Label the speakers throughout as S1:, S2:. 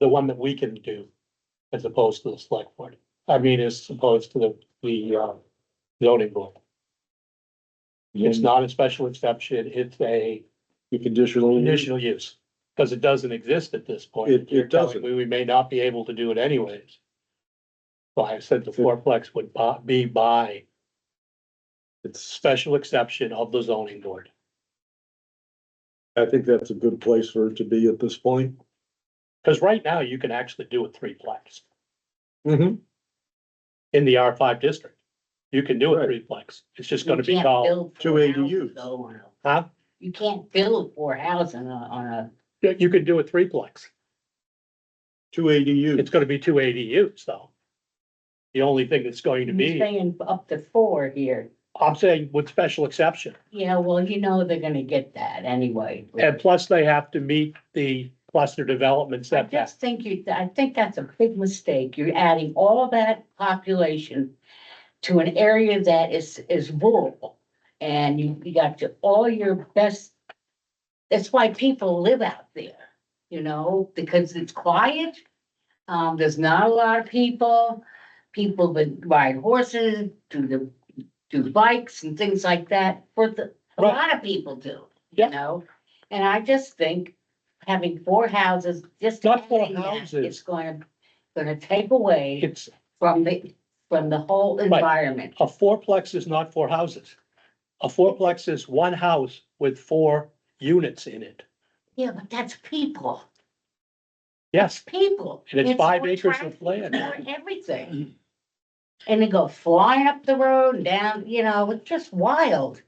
S1: the one that we can do as opposed to the select board. I mean, as opposed to the, the, uh, zoning board.
S2: Mm.
S1: It's not a special exception, it's a
S2: You conditional. use.
S1: conditional use, because it doesn't exist at this point.
S2: It- it
S1: You're telling
S2: doesn't.
S1: me We may not be able to do it anyways. Well, I said the fourplex would bu- be by
S2: It's,
S1: special exception of the zoning board.
S2: I think that's a good place for it to be at this point.
S1: Because right now, you can actually do a threeplex in the R five district. You can do a
S2: Right.
S1: threeplex. It's just gonna
S3: You
S1: be
S3: can't
S1: called,
S3: build
S2: two
S3: four
S2: ADUs.
S3: houses though on a-
S1: huh?
S3: You can't build four houses on a, on a,
S1: You you could do a threeplex.
S2: Two ADUs.
S1: It's gonna be two ADUs though. The only thing that's going to
S3: you're
S1: be,
S3: saying up to four here.
S1: I'm saying with special exception.
S3: Yeah, well, you know, they're gonna get that anyway.
S1: And plus they have to meet the cluster development
S3: I
S1: setback.
S3: just think you, I think that's a big mistake. You're adding all that population to an area that is, is rural. And you, you got to all your best, that's why people live out there, you know, because it's quiet. Um, there's not a lot of people, people that ride horses, do the, do bikes and things like that, for the, a
S1: Right.
S3: lot of people do,
S1: Yeah.
S3: you know? And I just think having four houses, just.
S1: Not four
S3: adding that,
S1: houses.
S3: It's going, gonna take away
S1: It's,
S3: from the, from the whole environment.
S1: a fourplex is not four houses. A fourplex is one house with four units in it.
S3: Yeah, but that's people,
S1: Yes,
S3: people.
S1: and it's five
S3: all
S1: acres
S3: traffic,
S1: of land.
S3: or Everything. And they go flying up the road and down, you know, it's just wild.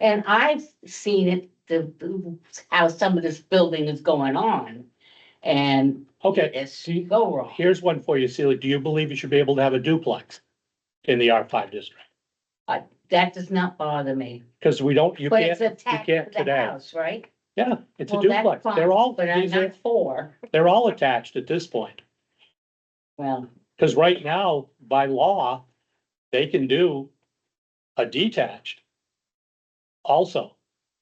S3: And I've seen it, the, the- how some of this building is going on. And
S1: Okay,
S3: it's, you go wrong.
S1: here's one for you, Celia. Do you believe you should be able to have a duplex in the R five district?
S3: That does not bother me.
S1: Because we don't, you
S3: But it's
S1: can't,
S3: attached
S1: can't
S3: to the
S1: today.
S3: house, right?
S1: yeah, it's a
S3: Well, that's
S1: duplex.
S3: fine,
S1: They're all,
S3: But I'm
S1: these are-
S3: not for,
S1: they're all attached at this point.
S3: well,
S1: Because right now, by law, they can do a detached. Also,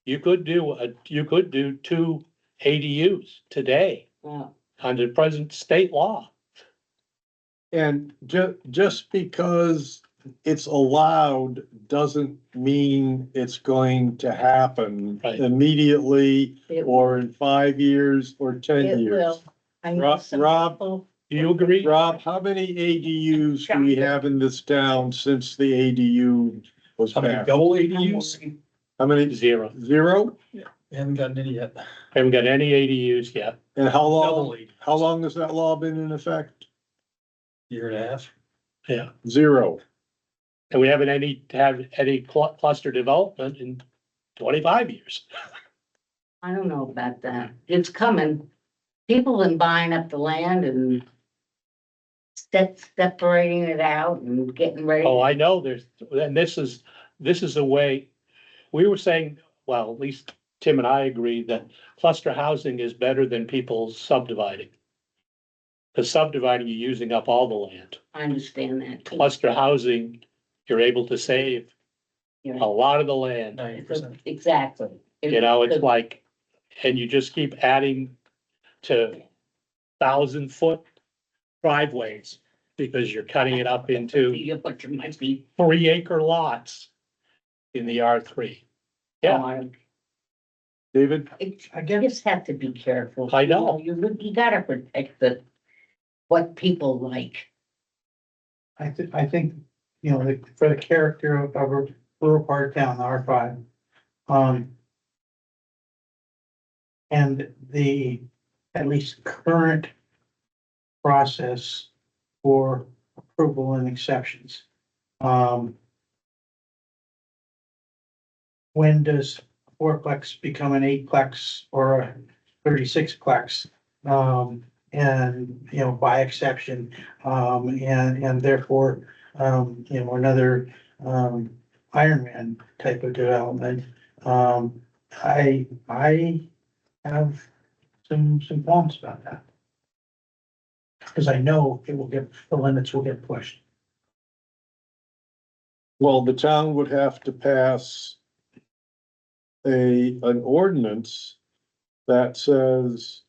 S1: you could do a, you could do two ADUs today
S3: well,
S1: under present state law.
S2: And ju- just because it's allowed doesn't mean it's going to happen
S1: Right.
S2: immediately
S3: it
S2: or in five years or ten
S3: It
S2: years.
S3: will. I know
S2: Rob-
S3: some
S2: Rob,
S3: people-
S1: Do you agree?
S2: Rob, how many ADUs do we have in this town since the ADU was passed?
S4: double
S3: I'm worried.
S2: How many?
S1: Zero.
S2: Zero?
S4: Haven't gotten any yet.
S1: Haven't got any ADUs yet.
S2: And how
S4: Double
S2: long,
S4: ADUs.
S2: how long has that law been in effect?
S4: Year and a half.
S2: Zero.
S1: And we haven't any, have any clu- cluster development in twenty-five years.
S3: I don't know about that. It's coming. People been buying up the land and step, separating it out and getting ready.
S1: Oh, I know, there's, and this is, this is a way, we were saying, well, at least Tim and I agree that cluster housing is better than people subdividing. Cause subdividing, you're using up all the land.
S3: I understand that. too.
S1: Cluster housing, you're able to save
S3: You
S1: a
S3: know,
S1: lot of the land.
S4: Ninety percent.
S3: Exactly.
S1: You know, it's like, and you just keep adding to thousand foot driveways because you're cutting it up into
S3: You're butchering my feet.
S1: three acre lots in the R three. Yeah.
S2: David?
S3: It,
S4: I
S3: you
S4: guess
S3: just have to be careful.
S1: I
S3: you
S1: know.
S3: You, you gotta protect the, what people like.
S5: I thi- I think, you know, the- for the character of of a rural part of town, R five. Um. And the, at least current process for approval and exceptions. Um. When does fourplex become an eightplex or a thirty-six plex? Um, and, you know, by exception, um, and, and therefore, um, you know, another, um, Ironman type of development. Um, I, I have some, some qualms about that. Cause I know it will get, the limits will get pushed.
S2: Well, the town would have to pass a, an ordinance that says